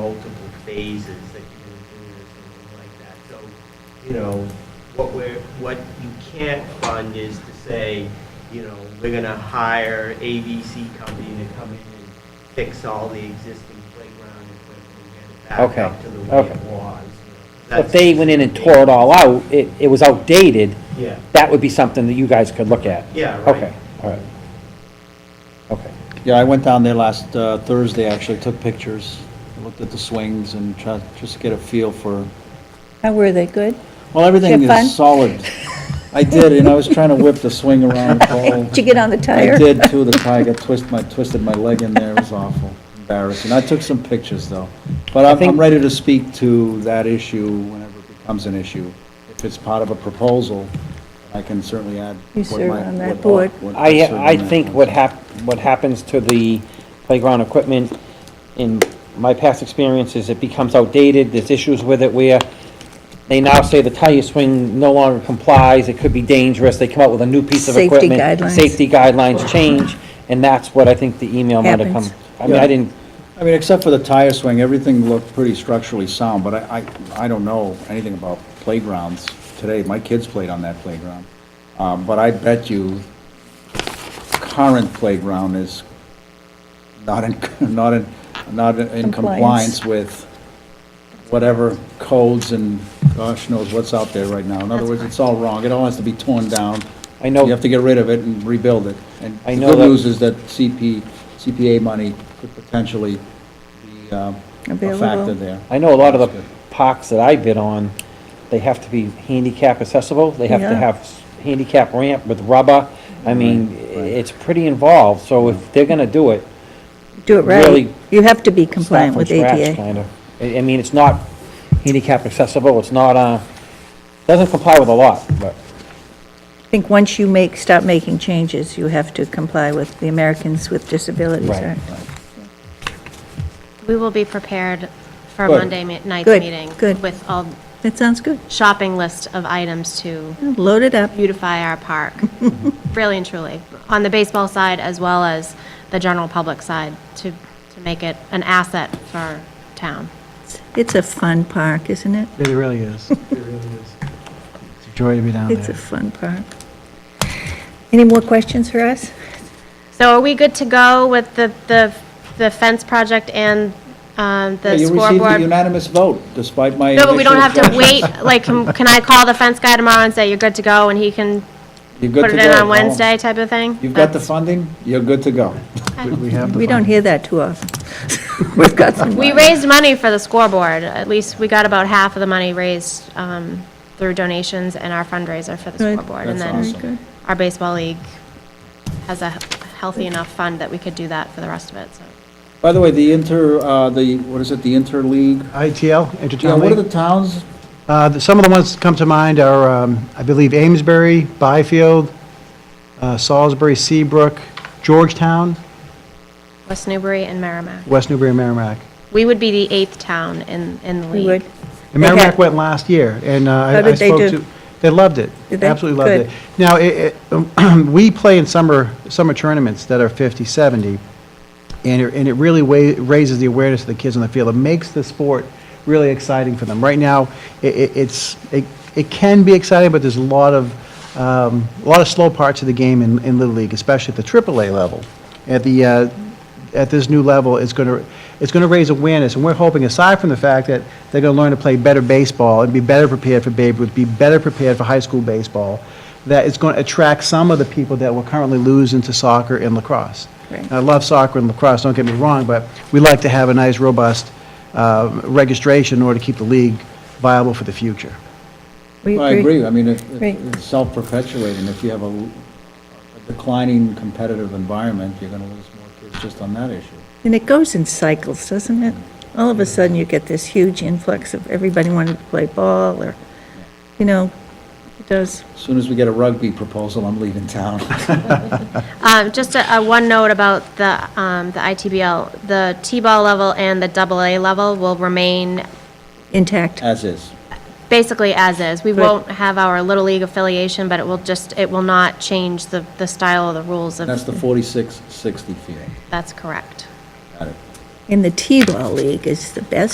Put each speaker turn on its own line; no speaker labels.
multiple phases that you can do or something like that. So, you know, what we're, what you can't fund is to say, you know, we're gonna hire ABC company to come in and fix all the existing playground equipment and get it back
Okay,
up to the way
okay.
it was.
If they went in and tore it all out, it, it was outdated,
Yeah,
that would be something that you guys could look at.
yeah, right.
Okay, all right. Okay,
Yeah, I went down there last uh, Thursday, actually, took pictures, looked at the swings and tried, just to get a feel for,
How were they, good?
well, everything
Have fun?
is solid. I did, and I was trying to whip the swing around the pole.
Did you get on the tire?
I did too, the tie got twist, my, twisted my leg in there, it was awful, embarrassing. I took some pictures though. But I'm,
think-
I'm ready to speak to that issue whenever it becomes an issue. If it's part of a proposal, I can certainly add.
You
what
serve
my-
on that
what-
board.
what-
I,
serve on
I
that
think
board.
what hap, what happens to the playground equipment, in my past experience, is it becomes outdated, there's issues with it where they now say the tire swing no longer complies, it could be dangerous, they come out with a new piece of
Safety
equipment.
guidelines.
Safety guidelines change, and that's what I think the email might have come.
Happens.
I mean,
Yeah.
I didn't,
I mean, except for the tire swing, everything looked pretty structurally sound, but I, I, I don't know anything about playgrounds today. My kids played on that playground. Um, but I bet you current playground is not in, not in, not in
Compliance.
compliance with whatever codes and gosh knows what's out there right now. In other words, it's all wrong. It all has to be torn down.
I know-
You have to get rid of it and rebuild it. And
I
the
know
good
that-
news is that CP, CPA money could potentially be um, a factor
Available.
there.
I know a lot of
That's
the
good.
parks that I bid on, they have to be handicap accessible, they have to
Yeah.
have s- handicap ramp with rubber. I mean, i- it's pretty involved, so if they're gonna do it,
Do it right.
Really
You have to be
start
compliant
from
with
scratch,
ADA.
kind of. I, I mean, it's not handicap accessible, it's not, uh, doesn't comply with a lot, but,
I think once you make, stop making changes, you have to comply with the Americans with Disabilities
Right,
Act.
We will be prepared for
Good.
Monday mi- night's
Good,
meeting.
good.
With all
That sounds good.
shopping list of items to
Load it up.
beautify our park, really and truly, on the baseball side as well as the general public side, to, to make it an asset for town.
It's a fun park, isn't it?
It really is. It really is. It's a joy to
Oh,
be down there.
It's a fun park. Any more questions for us?
So are we good to go with the, the, the fence project and um,
Yeah,
the
You received a
scoreboard?
unanimous vote despite my
No, but we don't have
initial
to wait,
objection.
like, can can I call the fence guy tomorrow and say, you're good to go, and he can
You're good
put
to
it in
go. Oh.
on Wednesday type of thing?
You've got the
That's-
funding, you're good to go.
We- We have the
We don't
fun.
hear that too often. We've got some.
We raised money for the scoreboard, at least we got about half of the money raised um, through donations and our fundraiser for the
Good.
scoreboard. And
That's
then
awesome.
Good.
our baseball league has a healthy enough fund that we could do that for the rest of it, so.
By the way, the inter, uh, the, what is it, the interleague?
ITL,
Yeah, what are the
Intertown
towns?
League. Some of Uh, the ones that come to mind are, um, I believe, Amesbury, Byfield, uh, Salisbury, Seabrook, Georgetown,
West Newbury and Merrimack.
West Newbury, and Merrimack.
We would be the eighth town in, in the
We
league.
would.
And
They had-
Merrimack went last year, and uh, I
How Oh, did
I
they
spoke
do?
to, they loved it.
Did they?
Absolutely loved it. Now, it- it- we play in summer, summer tournaments that are 50, 70, and it, and it really wa- raises the awareness of the kids on the field. It makes the sport really exciting for them. Right now, it, it, it's, it, it can be exciting, but there's a lot of, um, a lot of slow parts of the game in, in Little League, especially at the AAA level. At the, uh, at this new level is going to, it's going to raise awareness, and we're hoping, aside from the fact that they're going to learn to play better baseball and be better prepared for Babe Ruth, be better prepared for high school baseball, that it's going to attract some of the people that we're currently losing to soccer and lacrosse. Uh,
Right.
And I love soccer and lacrosse, don't get me wrong, but we like to have a nice, robust uh, registration in order to keep the league viable for the future.
We
I agree, I mean, it-
Agree.
it's self-perpetuating, if you have a l- a declining competitive environment, you're going to lose more kids just on that issue.
And it goes in cycles, doesn't it? All of a sudden, you get this huge influx of everybody wanting to play ball, or, you know, it does.
As Soon as we get a rugby proposal, I'm leaving town.
Uh, Just a, a one note about the, um, the ITBL, the T-ball level and the double A level will remain
Intact.
As is.
basically as is. We
Good.
won't have our Little League affiliation, but it will just, it will not change the, the style or the rules
That's
of,
the 46-60 field.
that's correct.
Got it.
in the T-ball league is the best